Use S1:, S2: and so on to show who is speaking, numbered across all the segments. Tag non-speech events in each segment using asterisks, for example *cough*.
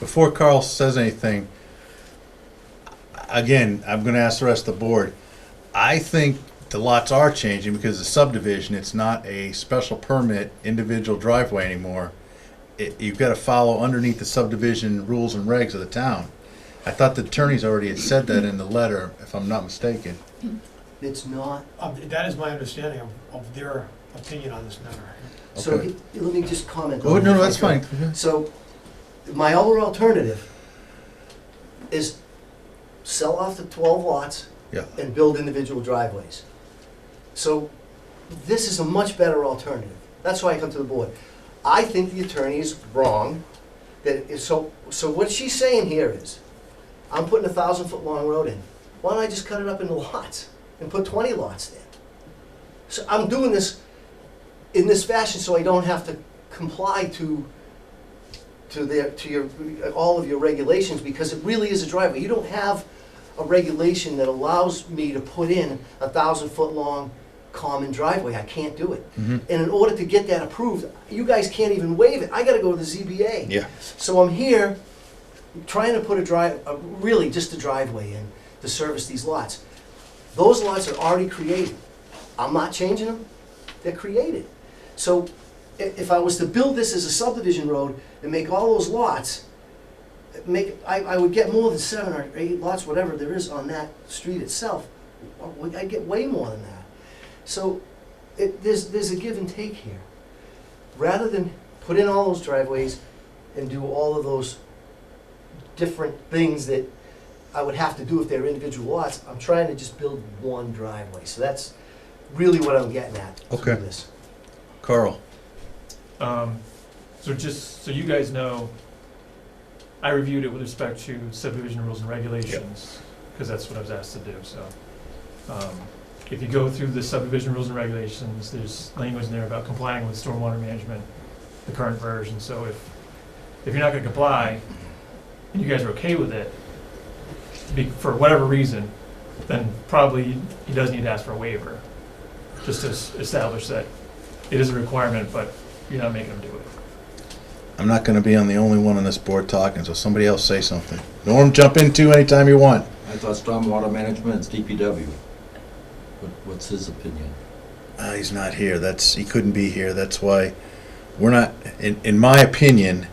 S1: before Carl says anything, again, I'm gonna ask the rest of the board. I think the lots are changing because the subdivision, it's not a special permit individual driveway anymore. It, you've gotta follow underneath the subdivision rules and regs of the town. I thought the attorneys already had said that in the letter, if I'm not mistaken.
S2: It's not,
S3: Um, That is my understanding of, of their opinion on this matter.
S2: so
S1: Okay.
S2: he- let me just comment.
S1: Oh,
S2: on
S1: no,
S2: that.
S1: no, that's fine.
S2: So, my other alternative is sell off the twelve lots
S1: Yeah.
S2: and build individual driveways. So, this is a much better alternative. That's why I come to the board. I think the attorney is wrong, that, is- so, so what she's saying here is, I'm putting a thousand foot long road in. Why don't I just cut it up into lots and put twenty lots there? So I'm doing this in this fashion so I don't have to comply to, to their, to your, all of your regulations because it really is a driveway. You don't have a regulation that allows me to put in a thousand foot long common driveway. I can't do it.
S1: Mhm.
S2: And in order to get that approved, you guys can't even waive it. I gotta go to the ZBA.
S1: Yeah.
S2: So I'm here trying to put a drive, a- really just a driveway in to service these lots. Those lots are already created. I'm not changing them, they're created. So i- if I was to build this as a subdivision road and make all those lots, make, I, I would get more than seven or eight lots, whatever there is on that street itself. I'd get way more than that. So it, there's, there's a give and take here. Rather than put in all those driveways and do all of those different things that I would have to do if they're individual lots, I'm trying to just build one driveway. So that's really what I'm getting at through
S1: Okay.
S2: this.
S1: Carl,
S4: Um, so just, so you guys know, I reviewed it with respect to subdivision rules and regulations, because that's what I was asked to do, so. Um, if you go through the subdivision rules and regulations, there's language in there about complying with stormwater management, the current version, so if, if you're not gonna comply, and you guys are okay with it, be, for whatever reason, then probably he does need to ask for a waiver, just to s- establish that it is a requirement, but you're not making them do it.
S1: I'm not gonna be on the only one on this board talking, so somebody else say something. Norm, jump in too anytime you want.
S5: I thought stormwater management is DPW. What- What's his opinion?
S1: Uh, he's not here. That's he couldn't be here. That's why we're not. In, in my opinion,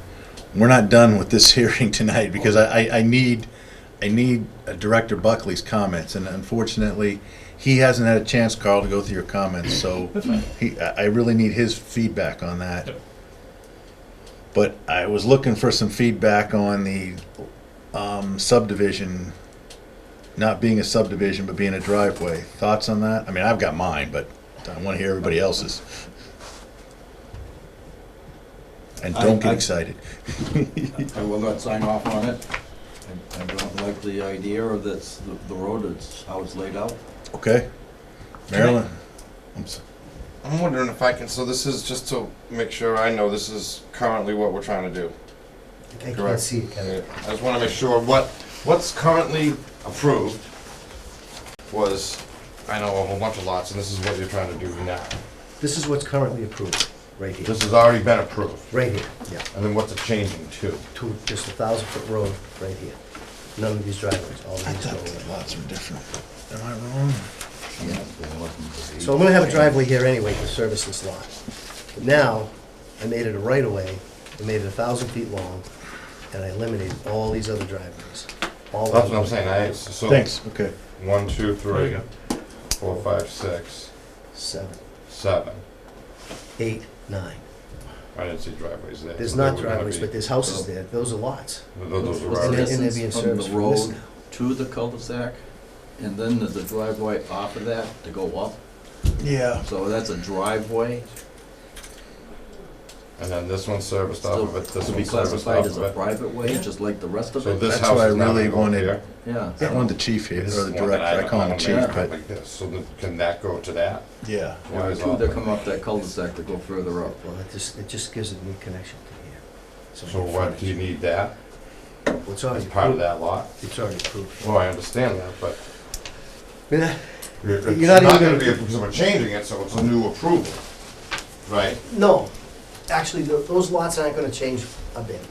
S1: we're not done with this *laughs* hearing tonight because I, I, I need I need uh, Director Buckley's comments, and unfortunately, he hasn't had a chance, Carl, to go through your comments. So he, I I really need his feedback on that.
S4: Yep.
S1: But I was looking for some feedback on the um, subdivision, not being a subdivision but being a driveway. Thoughts on that? I mean, I've got mine, but. I want to hear everybody else's. And
S5: I-
S1: don't get
S5: I-
S1: excited.
S5: I will not sign off on it. I- I don't like the idea of this, the- the road, it's how it's laid out.
S1: Okay? Marilyn? I'm s-
S6: I'm wondering if I can, so this is just to make sure I know this is currently what we're trying to do.
S2: I can't
S6: Correct.
S2: see it, Kevin.
S6: I just wanna make sure what, what's currently approved was, I know a whole bunch of lots, and this is what you're trying to do now.
S2: This is what's currently approved, right here,
S6: This has already been approved,
S2: right here, yeah.
S6: and then what's it changing to?
S2: to just a thousand foot road right here. None of these driveways, all of
S1: I
S2: these
S1: thought
S2: go
S1: the
S2: away.
S1: lots were different. Am I wrong?
S2: So I'm gonna have a driveway here anyway to service this lot. But now, I made it a right of way, I made it a thousand feet long, and I eliminated all these other driveways. All
S6: That's
S2: of
S6: what
S2: them.
S6: I'm saying, I, so.
S1: Thanks, okay.
S6: One,
S4: There
S6: two, three,
S4: you go.
S6: four, five, six,
S2: Seven,
S6: seven.
S2: eight, nine.
S6: I didn't see driveways there.
S2: There's
S6: so they
S2: not
S6: were gonna
S2: driveways,
S6: be-
S2: but there's houses there, those are lots.
S6: Those those are
S2: And
S6: already.
S2: they're and they're being
S5: From the
S2: serviced from this
S5: road.
S2: now.
S5: To the cul-de-sac, and then there's a driveway off of that to go up.
S1: Yeah.
S5: So that's a driveway,
S6: And then this one's serviced off
S5: still
S6: of it, this
S5: to be
S6: one's serviced
S5: classified
S6: off
S5: as
S6: of
S5: a
S6: it.
S5: private way, just like the rest of
S6: So
S5: it.
S6: this
S1: That's what I
S6: house is not
S1: really
S6: gonna go up
S1: wanted.
S6: here.
S5: Yeah.
S1: I wanted the chief here,
S6: This
S1: or
S6: is
S1: the
S6: one that
S1: director. I call him
S6: don't
S1: chief,
S6: know,
S1: but,
S6: Like this, so then can that go to that?
S1: yeah.
S6: Why
S5: There are
S6: is
S5: two
S6: all
S5: that
S6: that?
S5: come up that cul-de-sac to go further up.
S2: Well, it just, it just gives a new connection to here.
S6: So what, do you need that
S2: Well, It's already
S6: as part of
S2: approved,
S6: that lot?
S2: it's already approved.
S6: Well, I understand that, but
S2: I mean, I-
S6: it's
S2: You're not even
S6: not gonna
S2: gonna-
S6: be, because we're changing it, so it's a new approval, right?
S2: No, actually, tho- those lots aren't gonna change a bit.